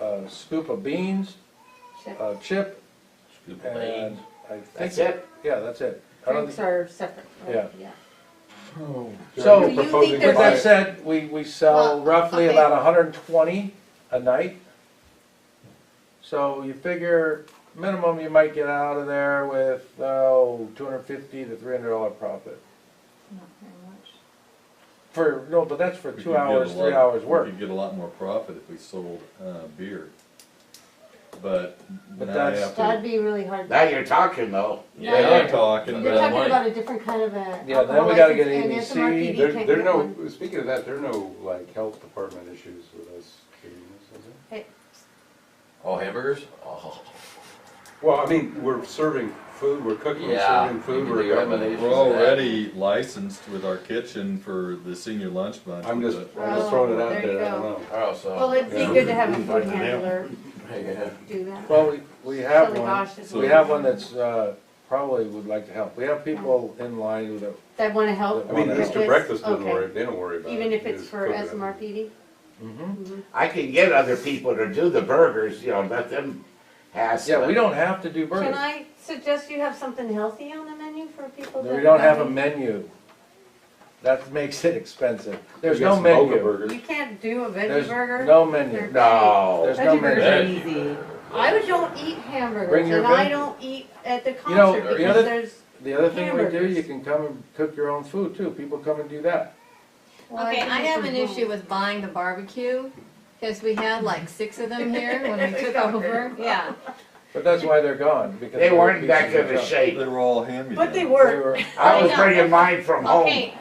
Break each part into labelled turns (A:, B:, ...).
A: a scoop of beans,
B: Chip.
A: a chip,
C: Scoop of
A: and
C: beans.
A: I think.
C: That's it?
A: Yeah, that's it. I don't
B: Drinks are separate. right?
A: Yeah.
D: So,
A: So-
D: you're proposing to
A: With
D: buy
A: that
D: it.
A: said, we, we sell
B: Well,
A: roughly
B: okay.
A: about hundred and twenty a night. So you figure minimum you might get out of there with, oh, two hundred and fifty to three hundred dollar profit.
B: Not very much.
A: For, no, but that's for
C: We could
A: two
C: get a
A: hours, three
C: lot-
A: hours work.
C: We could get a lot more profit if we sold, uh, beer. But
A: But
C: now you
A: that's-
C: have
B: That'd
C: to,
B: be really hard.
D: Now you're talking though.
B: now
C: now
B: you're-
C: you're talking
B: You're
C: about
B: talking
C: money.
B: about a different kind of a.
A: Yeah, then we
B: alcohol
A: gotta get
B: license, and it's an
A: ABC.
B: RTD,
D: There,
B: can't
D: there
B: get
D: no,
B: one.
D: speaking of that, there are no like health department issues with us doing this, is there?
E: Oh, hamburgers? Oh,
D: Well, I mean, we're serving food, we're cooking, we're
E: Yeah,
D: serving
E: you
D: food,
E: can
D: we're
E: do that, but
D: government.
E: they-
C: We're already licensed with our kitchen for the senior lunch bunch.
D: I'm just,
C: but-
D: I'm just throwing it
B: Oh,
D: out
B: there you
D: there, I don't
B: go.
D: know.
E: oh, so.
B: Well, it'd be
D: Yeah.
B: good to have a food handler do that.
A: Well, we, we have
B: Silly
A: one,
B: Oh gosh, it's
A: we have one that's, uh, probably would like to help. We have people in line who, that-
B: That wanna help.
D: I mean,
A: Well,
D: Mr.
B: It's-
D: Breakfast doesn't
B: okay.
D: worry, they don't worry about it.
B: Even if
D: They
B: it's
D: just
B: for
D: cook it.
B: SMRPD?
C: Mm-hmm.
A: Mhm.
F: I can get other people to do the burgers, you know, let them hassle.
A: yeah, we
F: it.
A: don't have to do
B: Can
A: burgers.
B: I suggest you have something healthy on the menu for people that?
A: We don't have a
B: come
A: menu. That makes it expensive. There's
D: We got
A: no
D: some Boga
A: menu.
B: in?
D: burgers.
B: You can't do a
A: There's
B: veggie burger?
A: no
B: They're
A: menu.
F: No.
A: There's no
B: Veggie burgers
A: menu.
B: are
C: Hey.
B: easy. I would don't eat hamburgers
A: Bring your
B: and I
A: veg-
B: don't eat at the
A: You know,
B: concert
E: the
B: because
A: other-
B: there's,
A: The other thing we do,
B: Hamburgers.
A: you can come and cook your own food too. People come and do that.
B: well,
G: Okay, I
B: think
G: have
B: we
G: an
B: don't.
G: issue with buying the barbecue, cause we had like six of them here when we took
B: Got
G: over,
B: rid
G: yeah.
A: But that's why they're gone because.
F: They
A: were
F: weren't that
A: pieces of
F: good of
A: junk.
F: shape.
C: They were all hand
B: But they
A: They
B: were.
A: were,
F: I was
G: I know.
F: bringing mine from home.
G: Okay,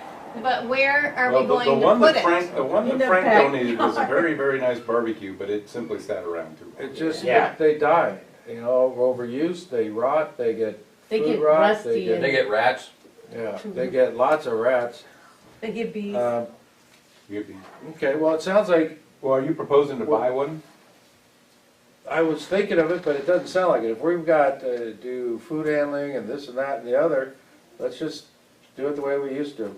G: but where are
D: Oh. Well,
G: we
D: the-
G: going
D: The one
G: to
D: that
G: put it?
D: Frank, the one
B: In
D: that
B: the
D: Frank
B: back
D: donated was a very, very nice barbecue, but it simply sat around too long.
A: it just,
F: Yeah.
A: they die, you know, overuse, they rot, they get,
B: They
A: Food
B: get
A: rot, they
B: rusty
A: get-
E: They
B: and
E: get rats?
A: yeah,
B: Mm-hmm.
A: they get lots of rats.
B: they get bees.
A: Uh,
D: You'd be-
A: Okay, well, it sounds like,
D: Well, are you proposing to buy one?
A: I was thinking of it, but it doesn't sound like it. If we've got to do food handling and this and that and the other, let's just do it the way we used to.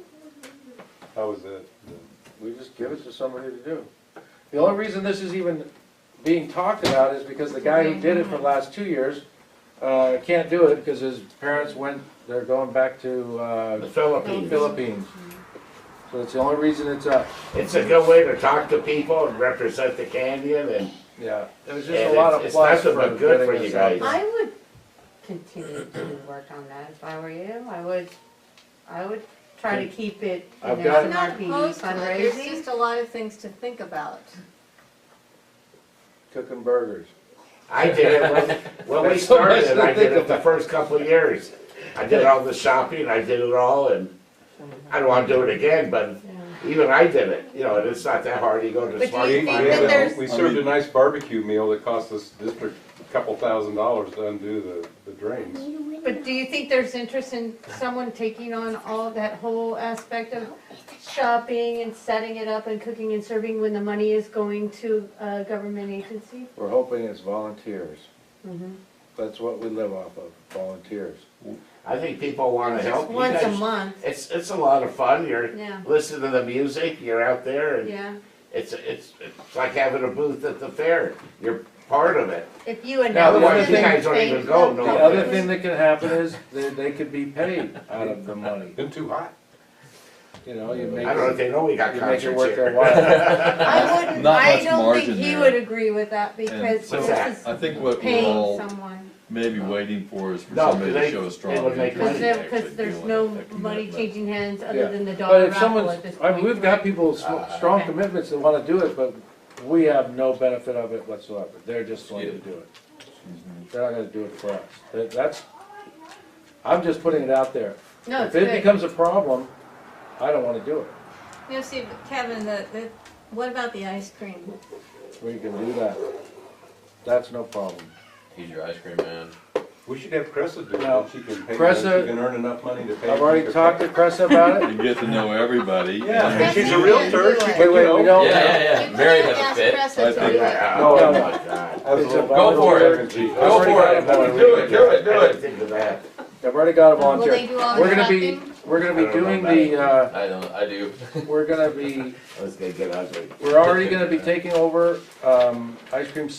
D: How was that?
A: We just give it to somebody to do. The only reason this is even being talked about is because the guy who did it for the last two years, uh, can't do it because his parents went, they're going back to,
F: The
A: uh,
F: Philippines.
A: Philippines. So it's the only reason it's up,
F: It's a good way to talk to people and represent the canyon and
A: yeah. It was
F: Yeah,
A: just a lot
F: it's-
A: of
F: it's
A: plus for
F: nothing but good
A: getting
F: for you
A: us out
F: guys.
A: there.
B: I would continue to work on that if I were you. I would, I would try to keep it, you
A: I've
B: know,
A: got-
G: I'm
B: an
G: not
B: RPD
G: opposed to it, there's
B: fundraising.
G: just a lot of things to think about.
A: Cooking burgers.
F: I did it when, when we
A: That's so much
F: started, it.
A: to
F: I did
A: think
F: it the first couple of years. I did all the shopping, I did it all and I don't wanna do it again, but even I did it, you know, and it's not that hard, you go
B: But
F: to
B: do
F: Smart
B: you
D: We-
B: think
D: we
B: that
D: had a-
B: there's-
D: We
C: I
D: served a
C: mean-
D: nice barbecue meal that cost this district a couple thousand dollars to undo the, the drains.
B: But do you think there's interest in someone taking on all that whole aspect of shopping and setting it up and cooking and serving when the money is going to a government agency?
A: We're hoping it's volunteers.
B: Mhm.
A: That's what we live off of, volunteers.
F: I think people wanna
B: Just
F: help. You
B: once a
F: guys-
B: month,
F: It's, it's a lot of fun, you're
B: Yeah.
F: listening to the music, you're out there and
B: yeah.
F: It's, it's, it's like having a booth at the fair. You're part of it.
B: If you announce.
A: Now, the other
B: it,
A: thing-
F: You guys don't
B: they
F: even go,
B: come
F: no
A: The
B: to
A: other
B: it.
A: thing that can happen is they, they could be paid out of the money,
D: Been too hot.
A: you know, you
F: I
A: make,
F: don't know if
A: it-
F: they know we got
A: you make it
F: concerts
A: worth their
F: here.
A: while.
B: I wouldn't,
C: Not
B: I
C: much
B: don't think
C: margin
B: he
C: there.
B: would agree with that because
C: so-
B: this is
C: I think what we're
B: paying
C: all
B: someone.
C: maybe waiting for is for
F: No,
C: somebody to
F: they-
C: show
F: they
C: a strong
F: would make
C: interest.
B: Because
F: money.
C: in
B: there,
C: actually
B: because there's
C: doing
B: no
C: that
B: money
C: commitment.
B: changing hands
A: Yeah.
B: other than the
A: But
B: dollar
A: if
B: raffle
A: someone's,
B: at this
A: I mean,
B: point.
A: we've got people with sw- strong
B: okay.
A: commitments that wanna do it, but we have no benefit of it whatsoever. They're just going to
C: Yeah.
A: do it. They're not gonna do it for us. That- That's, I'm just putting it out there.
B: No, it's
A: If it
B: good.
A: becomes a problem, I don't wanna do it.
G: You know, see, but Kevin, the, the, what about the ice cream?
A: We can do that. That's no problem.
E: He's your ice cream man.
D: We should have Cressa do
A: No.
D: it. She can pay, she
A: Cressa-
D: can earn enough money to pay.
A: I've already
D: for-
A: talked to Chris about it.
C: You get to know everybody.
D: Yeah,
C: and-
D: and she's a
G: Cressa
D: realtor.
G: can
D: She
G: do it.
A: Wait,
D: can,
A: wait, we
D: you know,
E: Oh, Yeah,
A: don't.
E: yeah, yeah. Mary
G: You
E: has a
G: couldn't
E: fit.
G: ask
C: I
G: Cressa to
C: think-
G: do it.
F: Yeah,
A: No, no.
F: Oh my God.
D: as a
A: It's a
D: volunteer
A: volunteer.
D: and she-
A: I've
E: Go
A: already
E: for
A: got
E: it.
A: a volunteer.
E: Do it, do it, do
F: I
E: it.
F: didn't think of that.
A: I've already got a volunteer.
G: Will they do all the
A: We're gonna be,
G: shopping?
A: we're
F: I
A: gonna be
F: don't know
A: doing
F: about
A: the, uh,
E: I don't, I do.
A: we're gonna be,
F: I was gonna get ugly.
A: we're already gonna be taking over, um, ice cream